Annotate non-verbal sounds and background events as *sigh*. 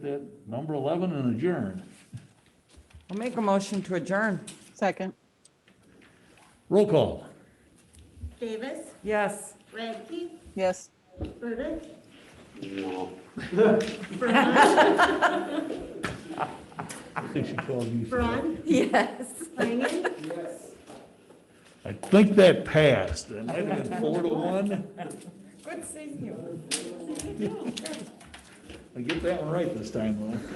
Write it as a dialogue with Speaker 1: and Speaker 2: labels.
Speaker 1: That number eleven and adjourn.
Speaker 2: I'll make a motion to adjourn.
Speaker 3: Second.
Speaker 1: Roll call.
Speaker 4: Davis,
Speaker 2: Yes.
Speaker 4: Radke,
Speaker 3: Yes.
Speaker 4: Burdick,
Speaker 1: I think she called you.
Speaker 4: Braun,
Speaker 2: *laughs* Yes.
Speaker 4: Langen,
Speaker 1: I think that passed. That might have been four to one.
Speaker 2: Good seeing you.
Speaker 1: I get that one right this time, though.